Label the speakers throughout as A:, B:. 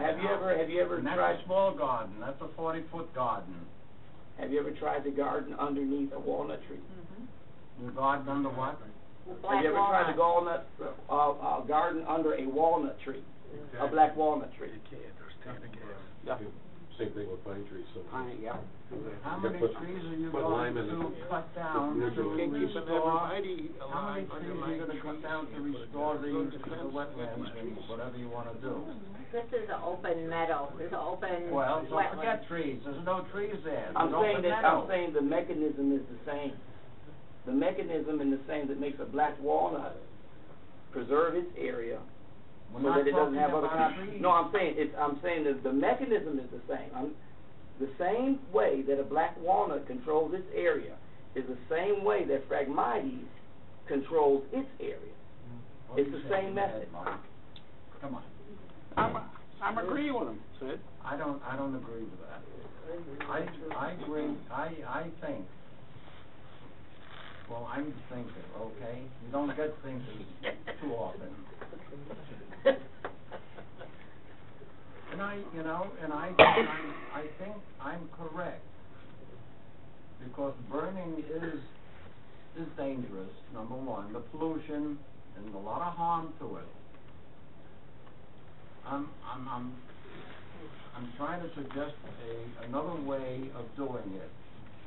A: you ever, have you ever
B: And that's
A: tried,
B: a small garden, that's a forty-foot garden.
A: have you ever tried to garden underneath a walnut tree?
C: Mm-hmm.
B: You garden under what?
A: Have you ever tried to walnut, uh, uh, garden under a walnut tree, a black walnut tree? Yeah.
D: Same thing with pine trees, so.
A: Pine, yeah.
B: How
D: You
B: many
D: put-
B: trees are you
D: put
B: going
D: lime in
B: to
D: it.
B: cut down
D: Yeah.
B: to
D: You can't
E: Keeping the
B: restore?
E: variety
B: How many trees are
E: alive,
B: you
E: underlying
B: gonna cut
E: trees.
B: down to restore the, to the wetlands and whatever you wanna do?
C: This is an open meadow, it's an open
B: Well, don't
C: wetland.
B: forget trees, there's no trees there.
A: I'm
B: There's
A: saying
B: open
A: that, I'm
B: meadow.
A: saying the mechanism is the same. The mechanism is the same that makes a black walnut preserve its area
B: We're
A: so that it
B: not
A: doesn't
B: talking
A: have other
B: about
A: kind.
B: trees.
A: No, I'm saying, it's, I'm saying that the mechanism is the same. I'm, the same way that a black walnut controls its area is the same way that Phragmites controls its area.
B: What are
A: it's
B: you
A: the same
B: shaking your head,
A: method.
B: Mike? Come on,
E: I'm, I'm agreeing with him, Sid.
B: I don't, I don't agree with that. I, I agree, I, I think, well, I'm a thinker, okay? You don't get thinkers too often. And I, you know, and I, I, I think I'm correct, because burning is, is dangerous, number one, the pollution, and a lot of harm to it. I'm, I'm, I'm, I'm trying to suggest a, another way of doing it.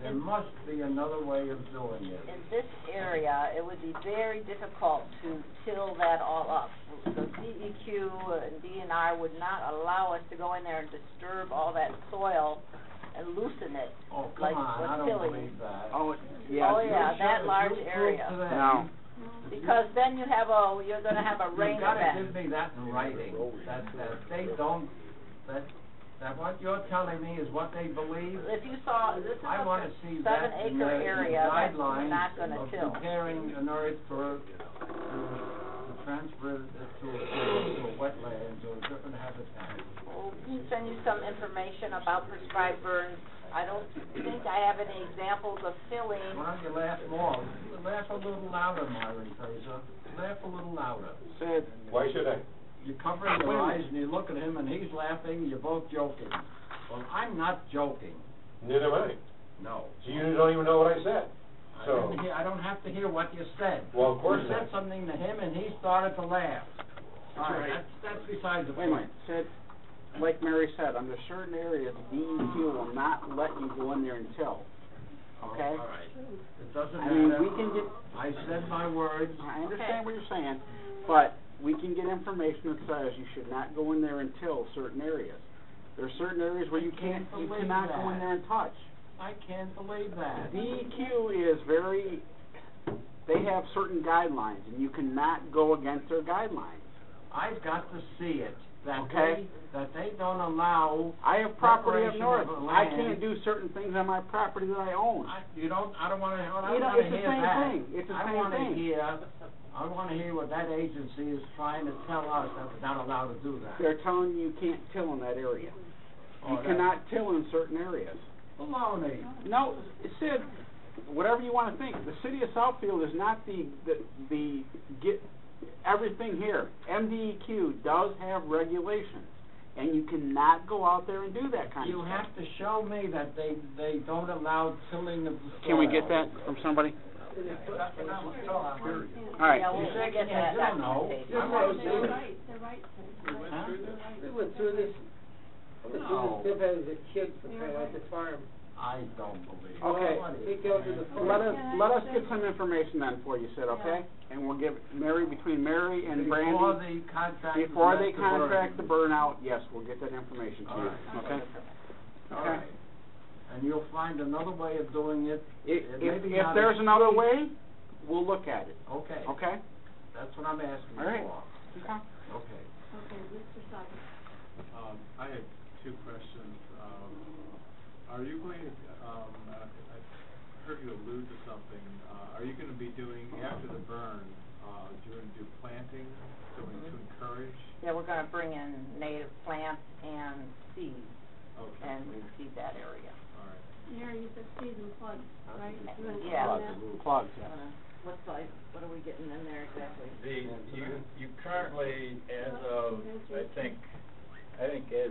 B: There must be another way of doing it.
C: In this area, it would be very difficult to till that all up. The DEQ and DNR would not allow us to go in there and disturb all that soil and loosen it.
B: Oh,
C: Like
B: come on, I
C: with
B: don't
C: Tilly.
B: believe that.
A: Oh,
C: Oh,
A: yeah.
C: yeah, that large
B: You
C: area.
B: prove to
A: No.
B: that.
C: Because then you have a, you're gonna have a rain
B: You've gotta
C: event.
B: give me that in writing, that, that they don't, that, that what you're telling me is what they believe.
C: If you saw, this is
B: I wanna
C: a
B: see
C: seven
B: that in the
C: acre
B: in the
C: area that we're not gonna
B: guidelines
C: till.
B: of preparing an earth for, to, to transfer it to, a- to a wetland, to a different habitat.
C: We'll send you some information about prescribed burns. I don't think I have any examples of filling.
B: Why don't you laugh more? Laugh a little louder, Myron Fraser. Laugh a little louder.
E: Sid,
D: Why should I?
B: You're covering your eyes and you look at him and he's laughing, you're both joking. Well, I'm not joking,
D: Neither am I.
B: no.
D: So you don't even know what I said.
B: I
D: So-
B: didn't hear, I don't have to hear what you said.
D: Well, of course
B: You
D: not.
B: said something to him and he started to laugh. All right, that's, that's besides the
E: wait a
B: point.
E: minute, Sid, like Mary said, under certain areas, DEQ will not let you go in there and till,
B: All
E: okay?
B: right. It doesn't
E: I mean,
B: matter.
E: we can get,
B: I said my words.
E: I understand what you're saying, but we can get information that says you should not go in there and till certain areas. There are certain areas where you
B: I
E: can't,
B: can't
E: you
B: believe
E: cannot go
B: that.
E: in there and touch.
B: I can't believe that.
E: DEQ E is very, they have certain guidelines, and you cannot go against their guidelines.
B: I've got to see it, that they,
E: Okay.
B: that they don't allow,
E: I have property up
B: Preparation
E: north,
B: of
E: I
B: land.
E: can't do certain things on my property that I own.
B: I, you don't, I don't wanna, I don't
E: You know,
B: wanna
E: it's the
B: hear
E: same
B: that.
E: thing. It's the
B: I
E: same
B: wanna
E: thing.
B: hear, I wanna hear what that agency is trying to tell us that we're not allowed to do that.
E: They're telling you you can't till in that area.
B: Oh,
E: You
B: that's
E: cannot till in certain areas.
B: Baloney.
E: No, Sid, whatever you wanna think, the city of Southfield is not the, the, the, get, everything here. MDEQ does have regulations, and you cannot go out there and do that kind of
B: You
E: stuff.
B: have to show me that they, they don't allow tilling of the soil.
E: Can we get that from somebody? All right.
C: Yeah,
B: You're
C: we'll we'll
B: shaking
C: get
B: your
C: that
B: head, you don't know.
C: documentation.
B: I wanna see
F: They're
B: it.
F: right, they're right.
B: Huh?
F: We went through this, went
B: No.
F: through this dip as a kid when I was at the farm.
B: I don't believe it.
E: Okay.
B: What is
F: He goes to the
B: that?
F: farm.
E: Let us, let us get some information then for you, Sid, okay? And we'll give Mary, between Mary and
B: Before
E: Brandy,
B: they contract.
E: before they
B: let the word.
E: contract the burnout, yes, we'll get that information to
B: All
E: you,
B: right.
E: okay?
B: All right. And you'll find another way of doing it.
E: If,
B: It may
E: if,
B: be
E: if
B: not
E: there's
B: as-
E: another way, we'll look at it,
B: Okay,
E: okay?
B: that's what I'm asking
E: All right.
B: for. Okay.
F: Okay, Mr. Sykes.
G: Um, I had two questions. Um, are you going to, um, I I heard you allude to something. Uh, are you gonna be doing, after the burn, uh, do you gonna do planting to, to encourage?
C: Yeah, we're gonna bring in native plants and seeds
G: Okay,
C: and reseed that area.
G: all right.
F: Mary, you said season plug, right? You went through
C: Yeah.
F: that.
E: Plugs, yeah.
C: Gonna- What size, what are we getting in there exactly?
H: The, you, you currently, as of, I think, I think as